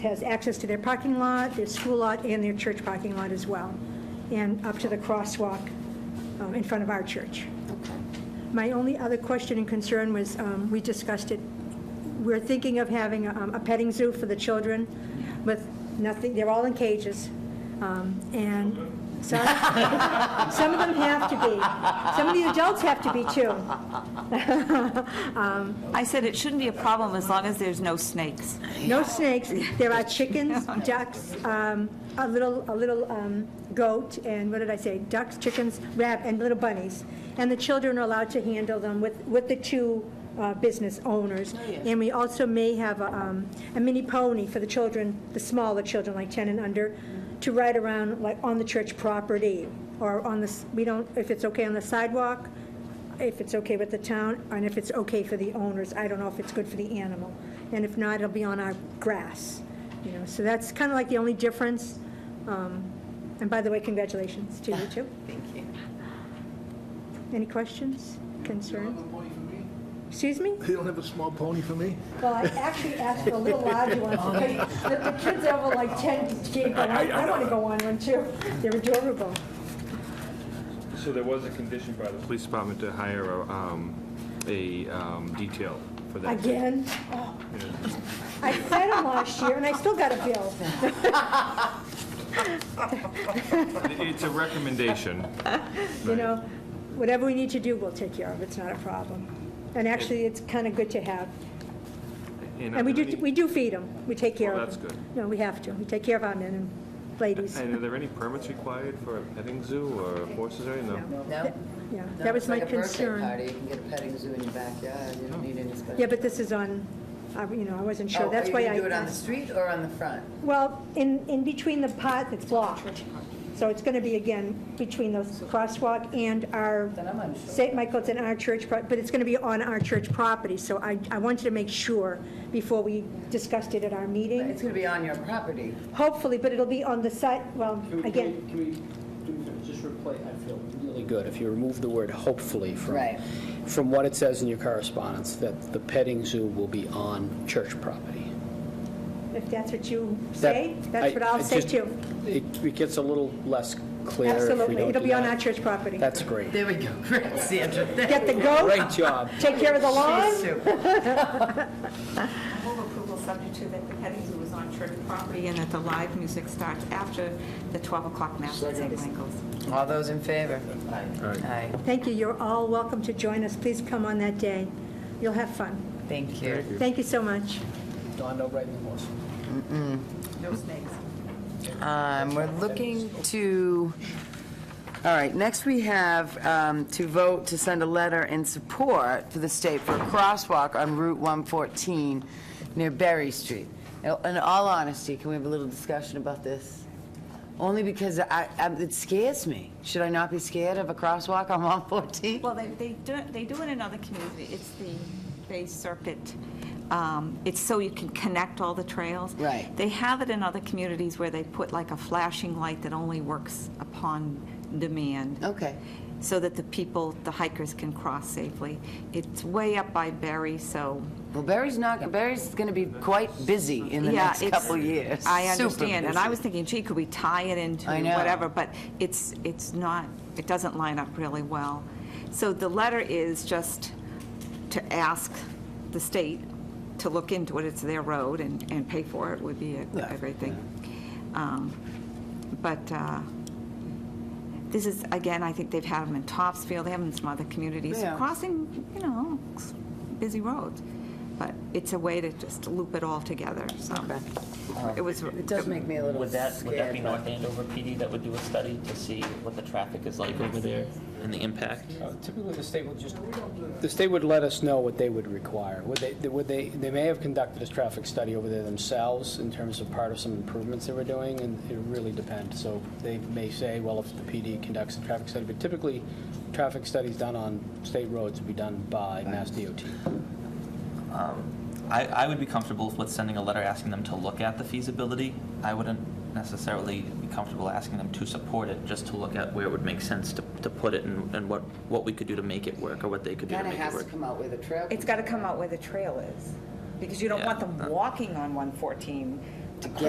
has access to their parking lot, their school lot, and their church parking lot as well, and up to the crosswalk um, in front of our church. My only other question and concern was, um, we discussed it, we're thinking of having um, a petting zoo for the children with nothing, they're all in cages, um, and some, some of them have to be. Some of the adults have to be, too. I said it shouldn't be a problem as long as there's no snakes. No snakes. There are chickens, ducks, um, a little, a little um, goat, and what did I say? Ducks, chickens, rab, and little bunnies. And the children are allowed to handle them with, with the two uh, business owners. And we also may have a um, a mini pony for the children, the smaller children, like 10 and under, to ride around like on the church property or on the, s- we don't, if it's okay on the sidewalk, if it's okay with the town, and if it's okay for the owners. I don't know if it's good for the animal. And if not, it'll be on our grass, you know, so that's kind of like the only difference. Um, And by the way, congratulations to you two. Thank you. Any questions, concerns? Excuse me? You don't have a small pony for me? Well, I actually asked for a little larger one, because the the kids have uh, like 10 kids, but I I want to go on one too. They're adorable. So there was a condition by the police department to hire a, um, a um, detail for that. Again? Oh. I fed them last year, and I still got a bill. It's a recommendation. you know, whatever we need to do, we'll take care of, it's not a problem. And actually, it's kind of good to have. And we do, we do feed them, we take care Well, of them. that's No, we have to, we take care of our men and ladies. And are there any permits required for a petting zoo or horses or anything? No. No? Yeah, No, that was it's my like a birthday concern. party. You can get a petting zoo in your backyard, you don't need any special. Yeah, but this is on, I- you know, I wasn't Oh, sure, are that's you why gonna I do it on the asked. street or on the front? Well, in, in between the pot that's blocked. So it's going to be, again, between those crosswalk and our Then I'm unsure. St. Michael's in our church, pro- but it's going to be on our church property, so I, I wanted to make sure before we discussed it at our It's meeting. gonna be on your property. Hopefully, but it'll be on the site, well, Can we- again, Can we, can we just replace, I feel really good if you remove the word hopefully from. Right. From what it says in your correspondence, that the petting zoo will be on church property. if that's what you That- say, I- that's what I I'll say just- too. It it gets a little less clear if we Absolutely, don't it'll do be on that. our church property. That's great. There we go, great, Sandra. Thank Get the goat, Great job. take care of the you, lawn. Sue. I move approval subject to that the petting zoo is on church property and that the live music starts after the 12 o'clock mass at St. Michael's. All those in favor? Aye. Aye, Thank you, you're all welcome to join us, please come on that day, you'll have fun. thank you. Thank you so much. Don, no riding the horse. No snakes. Um, We're looking to, all right, next we have um, to vote to send a letter in support to the state for a crosswalk on Route 114 near Berry Street. In in all honesty, can we have a little discussion about this? Only because I, I- it scares me. Should I not be scared of a crosswalk on 114? Well, they, they do, they do in another community, it's the Bay Serpent, um, it's so you can connect all the trails. Right. They have it in other communities where they put like a flashing light that only works upon demand. Okay. So that the people, the hikers can cross safely. It's way up by Berry, so, Well, Berry's not, Berry's going to be quite busy in the yeah, next it's. couple years. I Super understand, and I busy. was thinking, gee, could we tie it into I know. whatever, but it's, it's not, it doesn't line up really well. So the letter is just to ask the state to look into it, it's their road, and, and pay for it would be a a great thing. Um, But, uh, this is, again, I think they've had them in Topsfield, they have them in some other communities, Yeah. crossing, you know, s- busy roads. But it's a way to just loop it all together, so. It was, It does make me a little Would scared. that, would that be but- North Andover PD that would do a study to see what the traffic is like over there and the impact? Uh, Typically, the state would just, the state would let us know what they would require. Would they, would they, they may have conducted a traffic study over there themselves in terms of part of some improvements they were doing, and it really depends. So they may say, well, if the PD conducts a traffic study, but typically, traffic studies done on state roads would be done by Mass DOT. I, I would be comfortable with sending a letter asking them to look at the feasibility. I wouldn't necessarily be comfortable asking them to support it, just to look at where it would make sense to, to put it and, and what, what we could do to make it work or what they could do to Kind of make it has to work. come out with a trail. it's got to come out where the trail is, because you don't want Yeah. them walking on 114 to get